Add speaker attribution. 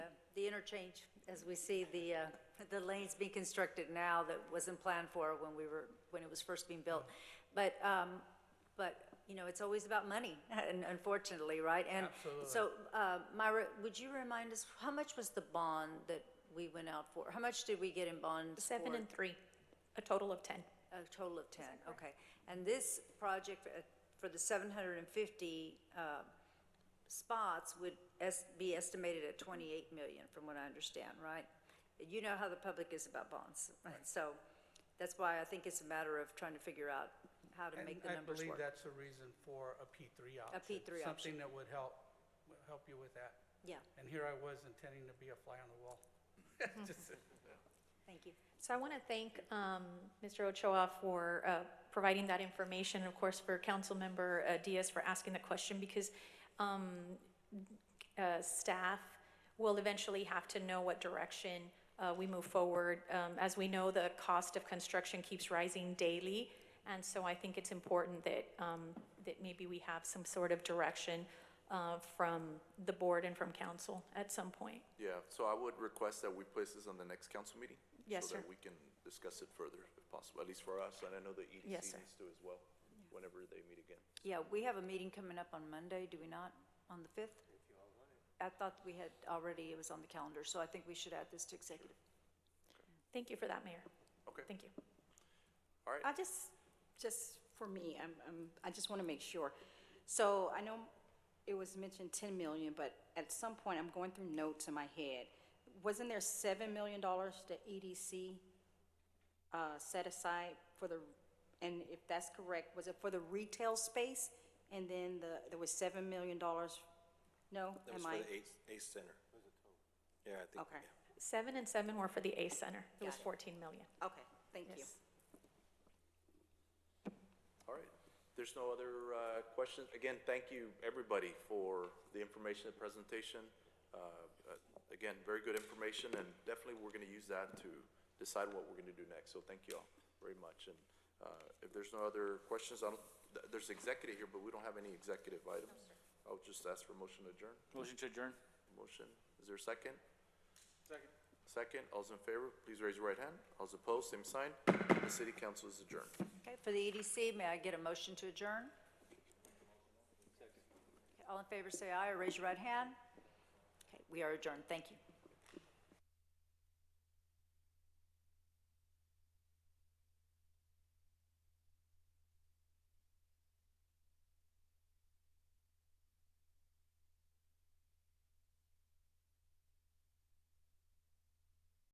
Speaker 1: the interchange, as we see the, uh, the lanes being constructed now that wasn't planned for when we were, when it was first being built. But, um, but, you know, it's always about money, un- unfortunately, right? And
Speaker 2: Absolutely.
Speaker 1: So, uh, Myra, would you remind us, how much was the bond that we went out for? How much did we get in bonds for?
Speaker 3: Seven and three, a total of 10.
Speaker 1: A total of 10, okay. And this project uh, for the 750 uh, spots would es- be estimated at 28 million, from what I understand, right? You know how the public is about bonds, so that's why I think it's a matter of trying to figure out how to
Speaker 2: And
Speaker 1: make the numbers
Speaker 2: I believe
Speaker 1: work.
Speaker 2: that's a reason for a P3 option.
Speaker 1: P3 option.
Speaker 2: Something that would help, would help you with that.
Speaker 1: Yeah,
Speaker 2: And here I was intending to be a fly on the wall. Just-
Speaker 1: thank you.
Speaker 3: So I want to thank um, Mr. Ochoa for uh, providing that information, of course, for Councilmember uh, Diaz for asking the question, because um, uh, staff will eventually have to know what direction uh, we move forward. Um, As we know, the cost of construction keeps rising daily, and so I think it's important that, um, that maybe we have some sort of direction uh, from the board and from council at some point.
Speaker 4: Yeah, so I would request that we place this on the next council meeting.
Speaker 3: Yes,
Speaker 4: So
Speaker 3: sir.
Speaker 4: that we can discuss it further if possible, at least for us, and I know the EDC
Speaker 3: Yes, sir.
Speaker 4: needs to as well, whenever they meet again.
Speaker 1: Yeah, we have a meeting coming up on Monday, do we not, on the 5th? I thought we had already, it was on the calendar, so I think we should add this to executive.
Speaker 3: Thank you for that, Mayor.
Speaker 4: Okay,
Speaker 3: Thank you.
Speaker 4: all right.
Speaker 5: I just, just for me, I'm, I'm, I just want to make sure. So I know it was mentioned ten million, but at some point, I'm going through notes in my head. Wasn't there seven million dollars to EDC, uh, set aside for the, and if that's correct, was it for the retail space? And then the, there was seven million dollars? No,
Speaker 6: That was
Speaker 5: am
Speaker 6: for
Speaker 5: I?
Speaker 6: the ACE, ACE Center. Yeah, I think.
Speaker 5: Okay,
Speaker 6: yeah.
Speaker 3: Seven and seven were for the A Center. It was
Speaker 5: Got
Speaker 3: 14
Speaker 5: it.
Speaker 3: million.
Speaker 5: okay, thank you.
Speaker 3: Yes.
Speaker 4: All right. There's no other uh, questions. Again, thank you, everybody, for the information, the presentation. Uh, uh, Again, very good information, and definitely we're going to use that to decide what we're going to do next. So thank you all very much. And uh, if there's no other questions, I don't, th- there's executive here, but we don't have any executive items. I'll just ask for motion to adjourn.
Speaker 7: Motion to adjourn.
Speaker 4: Motion, is there a second? Second. Second, all's in favor, please raise your right hand. All's opposed, same sign. The city council is adjourned.
Speaker 1: Okay, for the EDC, may I get a motion to adjourn? All in favor, say aye or raise your right hand. Okay, we are adjourned. Thank you.